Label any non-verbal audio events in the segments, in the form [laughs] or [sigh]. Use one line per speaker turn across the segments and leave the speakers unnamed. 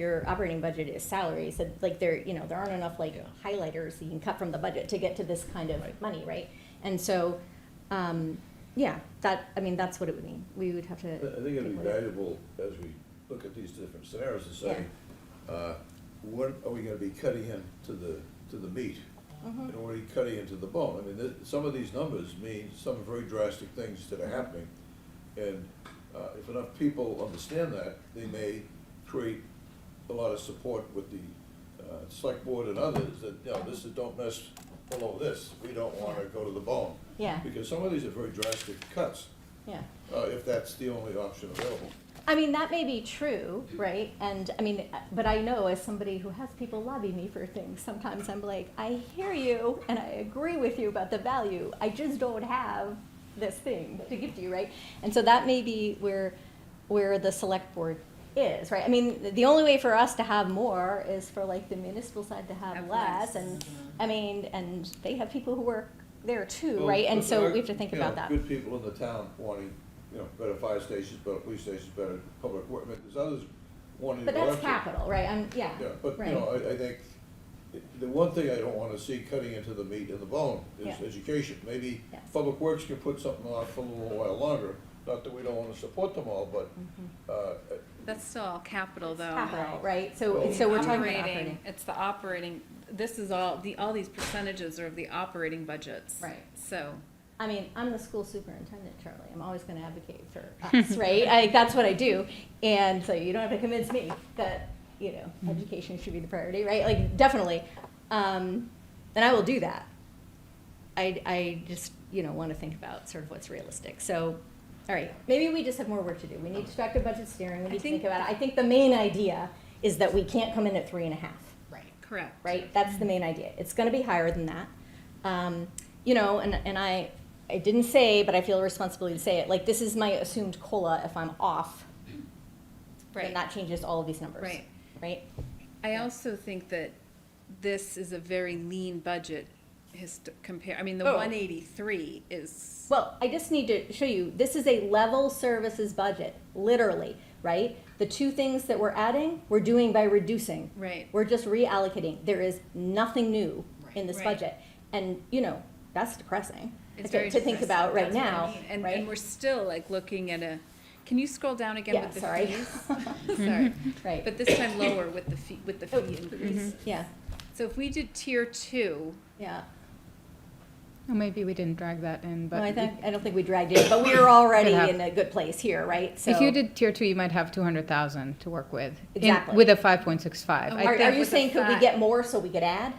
your operating budget is salaries, and like there, you know, there aren't enough like
Yeah.
highlighters that you can cut from the budget to get to this kind of
Right.
money, right? And so, um, yeah, that, I mean, that's what it would mean. We would have to.
I think it'd be
what it-
valuable as we look at these different scenarios to say, uh, what are we gonna be cutting in to the, to the meat? And what are we cutting into the bone? I mean, th- some of these numbers mean some very drastic things that are happening. And uh, if enough people understand that, they may create a lot of support with the uh, select board and others that, you know, this is, don't mess below this. We don't wanna go to the bone.
Yeah.
Because some of these are very drastic cuts
Yeah.
uh, if that's the only option available.
I mean, that may be true, right? And I mean, but I know as somebody who has people lobby me for things, sometimes I'm like, I hear you and I agree with you about the value. I just don't have this thing to give to you, right? And so that may be where, where the select board is, right? I mean, the only way for us to have more is for like the municipal side to have
Have
less
less.
and, I mean, and they have people who work there
Oh,
too, right? And so we have to think
You know,
about that.
Good people in the town wanting, you know, better fire stations, better police stations, better public work, I mean, there's others wanting.
But that's
direction.
capital, right? I'm, yeah,
Yeah, but, you
right.
know, I, I think, the one thing I don't wanna see cutting into the meat and the bone is
Yeah.
education. Maybe
Yeah.
public works can put something off for a little while longer, not that we don't wanna support them all, but, uh,
Mm-hmm.
That's still all capital, though.
capital, right? So,
Well-
so we're talking about
Operating,
operating.
it's the operating, this is all, the, all these percentages are of the operating budgets.
Right.
So,
I mean, I'm the school superintendent, Charlie. I'm always gonna advocate for us, [laughs] right? I, that's what I do. And so you don't have to convince me that, you know, education should be the priority, right? Like, definitely. Um, and I will do that. I, I just, you know, wanna think about sort of what's realistic. So, all right, maybe we just have more work to do. We need to talk to budget steering. We
I
need to think
think-
about it. I think the main idea is that we can't come in at three and a half.
right, correct.
right? That's the main idea. It's going to be higher than that. Um, you know, and, and I, I didn't say, but I feel a responsibility to say it, like, this is my assumed COLA if I'm off, then
Right.
that changes all of these numbers.
Right.
Right?
I also think that this is a very lean budget hist- compare, I mean, the
Oh.
one eighty-three is.
Well, I just need to show you, this is a level services budget, literally, right? The two things that we're adding, we're doing by reducing.
Right.
We're just reallocating. There is nothing new in this
Right.
budget. And, you know, that's depressing
It's
to,
very
to think
depressing.
about right
That's what I
now,
mean. And,
right?
and we're still like looking at a, can you scroll down again
Yeah,
with the
sorry. [laughs]
fees? Sorry.
Right.
But this time lower with the fee, with the
Oh,
fee increase.
Yeah,
So if we did tier two,
yeah.
Well, maybe we didn't drag that in,
No,
but
I
you-
think, I don't think we dragged it, but we were already
[coughs] Could have.
in a good place here, right? So
if you did tier two, you might have two hundred thousand to work with. in-
Exactly.
With a five point six five.
Oh,
Are,
I
are
think
you
with the
saying could we
five-
get more so we could
[laughs]
add?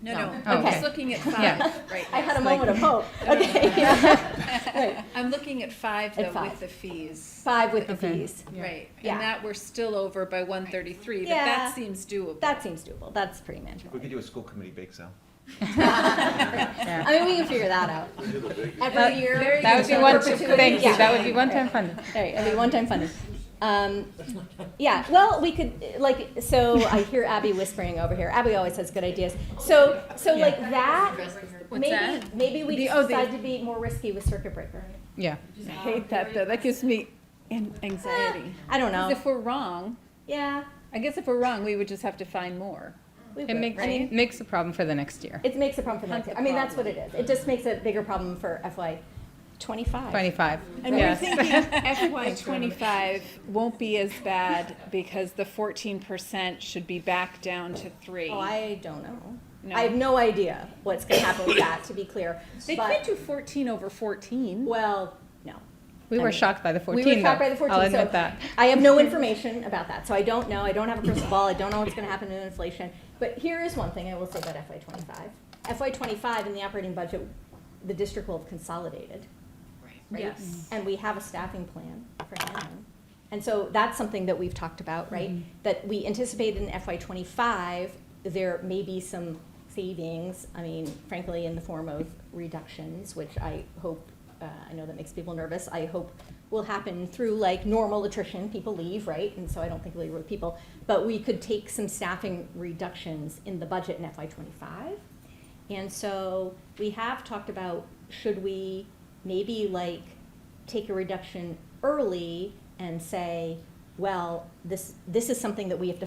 no, Oh,
No.
no, I'm
Okay.
just looking [laughs]
[laughs]
at five right
I had a
[laughs] now.
moment of
[laughs]
hope. Okay, yeah. Right.
I'm looking at five
At
though with
five.
the fees,
[laughs] Five with the
Okay.
fees.
Yeah.
right?
Yeah.
And that we're still over by one thirty-three, but
Yeah.
that seems doable.
That seems doable. That's pretty
We
manageable.
could do a school committee bake sale.
I mean, we can figure that out. Every year.
That would be one,
perpetuity.
thank you,
Yeah.
that would be one time funded.
Right, it'll be one-time funding. Um, yeah, well, we could, like, so I hear Abby whispering over here. Abby always has good ideas. So, so like that,
What's
maybe,
that?
maybe we
The- oh, the-
decide to be more risky with circuit breaker.
Yeah.
I hate that though, that gives me an- anxiety.
I don't
'Cause
know.
if we're wrong,
Yeah,
I guess if we're wrong, we would just have to find more.
we
It
would.
makes,
I mean,
makes a problem for the next year.
it makes a problem for the next
Hunt
year.
the
I mean, that's what it is. It just makes a bigger problem for FY twenty-five.
Twenty-five,
And we're
yes.
thinking FY twenty-five won't be as bad because the fourteen percent should be back down to three.
Oh, I don't know.
No.
I have no idea what's gonna happen with that, to be clear.
They
But-
can't do fourteen over fourteen.
Well, no.
We
I
were
mean,
shocked by the
We
fourteen though.
were shocked by the fourteen,
I'll
so
admit that.
I have
[laughs]
no information about that, so I don't know, I don't have a crystal ball, I don't know what's gonna happen in inflation. But here is one thing I will say about FY twenty-five. FY twenty-five in the operating budget, the district will have consolidated. right?
Yes.
And we have a staffing plan for Hannon. And so that's something that we've talked about, right? That we anticipate in FY twenty-five, there may be some savings, I mean, frankly, in the form of reductions, which I hope, uh, I know that makes people nervous, I hope will happen through like normal attrition, people leave, right? And so I don't think we with people, but we could take some staffing reductions in the budget in FY twenty-five. And so we have talked about, should we maybe like take a reduction early and say, well, this, this is something that we have to